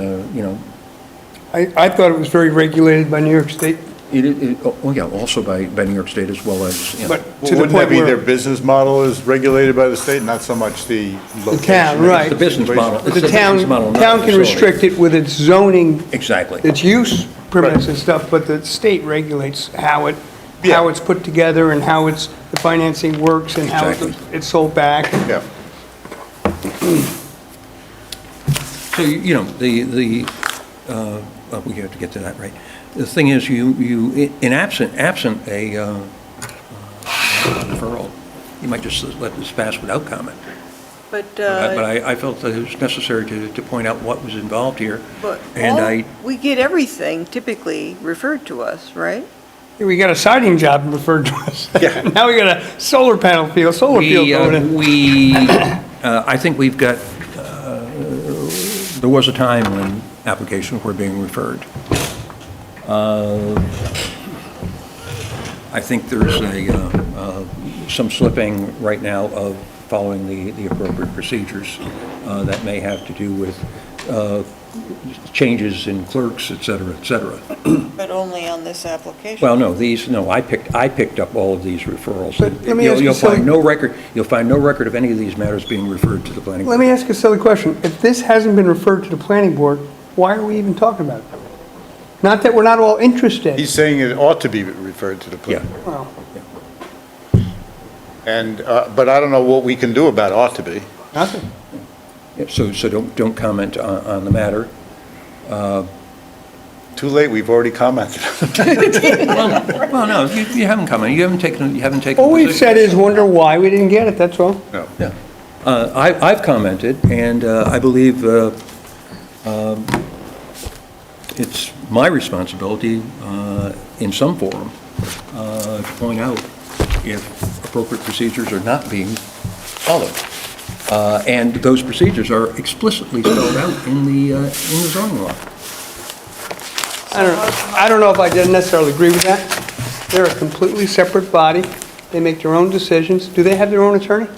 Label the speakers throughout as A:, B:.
A: uh, you know,
B: I, I thought it was very regulated by New York State,
A: it, it, oh, yeah, also by, by New York State as well as, you know.
B: but to the
C: Wouldn't that
B: point
C: be their
B: where.
C: business model is regulated by the state, not so much the location? of
B: right.
A: The business model. It's
C: situation?
A: a
B: The
A: business
B: town,
A: model, not a
B: town can
A: facility.
B: restrict it with its zoning,
A: Exactly.
B: its use permits and stuff, but the state regulates how it, how
C: Yeah.
B: it's put together and how it's, the financing works and how it's-
A: Exactly.
B: it's sold back.
C: Yeah.
A: So, you you know, the, the, uh, uh, we have to get to that, right? The thing is, you, you, in absent, absent a uh, uh, referral, you might just let this pass without comment.
D: But,
A: But
D: uh,
A: I, I felt that it was necessary to, to point out what was involved here.
D: but
A: And I,
D: all, we get everything typically referred to us, right?
B: We got a siding job referred to us. Now we got a solar panel field, solar field
A: we,
B: going
A: uh,
B: in.
A: we, uh, I think we've got, uh, there was a time when applications were being referred. Uh, I think there's a, uh, uh, some slipping right now of following the the appropriate procedures uh, that may have to do with uh, changes in clerks, et cetera, et cetera.
D: But only on this application.
A: Well, no, these, no, I picked, I picked up all of these referrals.
B: But let me
A: You'll-
B: ask you
A: You'll find
B: some-
A: no record, you'll find no record of any of these matters being referred to the planning.
B: Let
A: board.
B: me ask you a silly question. If this hasn't been referred to the planning board, why are we even talking about it? Not that we're not all interested.
C: He's saying it ought to be referred to the
A: Yeah,
C: planning board.
B: Well,
C: And, uh, but I don't know what we can do about ought to be.
B: nothing.
A: Yeah, so, so don't, don't comment on, on the matter.
C: Too late, we've already commented.
A: Well, no, you, you haven't commented, you haven't taken, you haven't taken. a
B: All we've
A: position.
B: said is wonder why we didn't get it, that's all.
C: No.
A: Yeah. Uh, I, I've commented, and uh, I believe uh, um, it's my responsibility, uh, in some forum, uh, to point out if appropriate procedures are not being followed. Uh, And those procedures are explicitly spelled out in the, uh, in the zoning law.
B: I don't, I don't know if I necessarily agree with that. They're a completely separate body. They make their own decisions. Do they have their own attorney? Or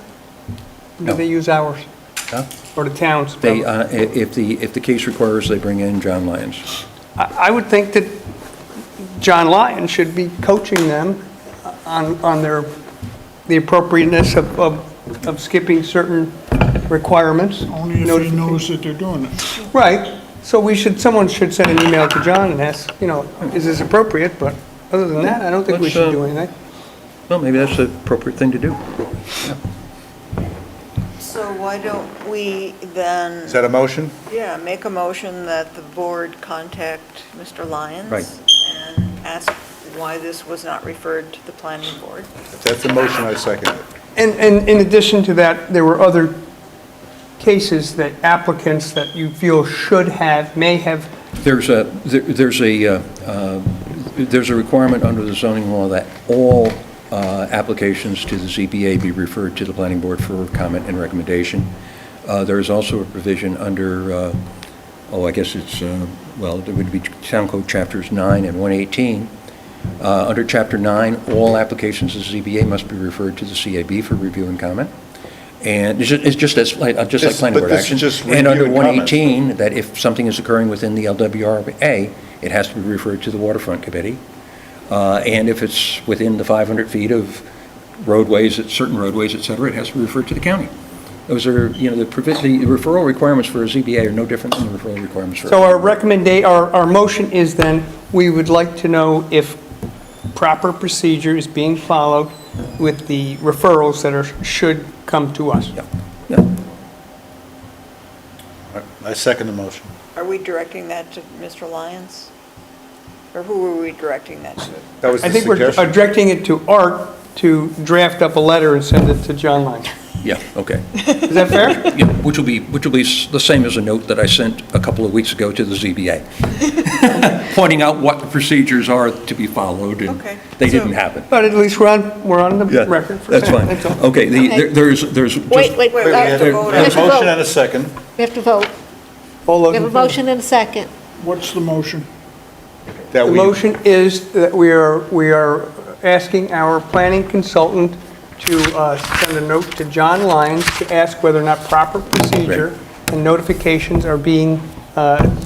A: No.
B: Do they use ours?
A: Huh?
B: Or the town's?
A: They, uh, i- if the, if the case requires, they bring in John Lyons.
B: I I would think that John Lyon should be coaching them on, on their, the appropriateness of, of of skipping certain requirements.
E: Only if he
B: Notification.
E: knows that they're doing it.
B: Right, so we should, someone should send an email to John and ask, you know, is this appropriate? But other than that, I don't think we
A: Let's,
B: should
A: uh,
B: do anything.
A: Well, maybe that's the appropriate thing to do.
D: So why don't we then,
C: Is that a motion?
D: yeah, make a motion that the board contact Mr. Lyons?
A: Right.
D: And ask why this was not referred to the planning board?
C: If that's a motion, I second it.
B: And, and in addition to that, there were other cases that applicants that you feel should have, may have,
A: There's a, there- there's a, uh, uh, there's a requirement under the zoning law that all uh, applications to the ZBA be referred to the planning board for comment and recommendation. Uh, There is also a provision under, uh, oh, I guess it's, uh, well, it would be Town Code Chapters 9 and 118. Uh, Under Chapter 9, all applications to ZBA must be referred to the CAB for review and comment. And it's ju- it's just as, like- uh, just like
C: This-
A: planning
C: but
A: board
C: this is
A: action.
C: just
A: And under
C: review and comment.
A: 118, mean that if something is occurring within the LWRA, it has to be referred to the waterfront committee. Uh, And if it's within the 500 feet of roadways, at certain roadways, et cetera, it has to be referred to the county. Those are, you know, the provi- the referral requirements for a ZBA are no different than the referral requirements for.
B: so our recommenda, our, our motion is then, we would like to know if proper procedure is being followed with the referrals that are, should come to us.
A: Yeah, yeah.
C: I second the motion.
D: Are we directing that to Mr. Lyons? Or who are we directing that to?
C: That was
B: I
C: the
B: think we're
C: suggestion.
B: directing it to Art to draft up a letter and send it to John Lang.
A: Yeah, okay.
B: Is that fair?
A: Yeah, Which will be, which will be s- the same as a note that I sent a couple of weeks ago to the ZBA, pointing out what the procedures are to be followed, and
D: Okay,
A: they
D: so-
A: didn't happen.
B: But at least we're on, we're on the
A: Yeah,
B: record for
A: That's
B: that.
A: fine. Okay, the- there- there's, there's. just-
F: Wait, wait,
D: Wait, we have to
A: there-
D: vote
C: We have
F: Mr.
C: a motion
F: Vogt.
C: and a second.
F: we have to vote.
B: All those
F: We have a
B: in favor?
F: motion and a second.
E: What's the motion?
C: That
B: The
C: we,
B: motion is that we are, we are asking our planning consultant to uh, send a note to John Lyons to ask whether or not proper procedure and notifications are being uh,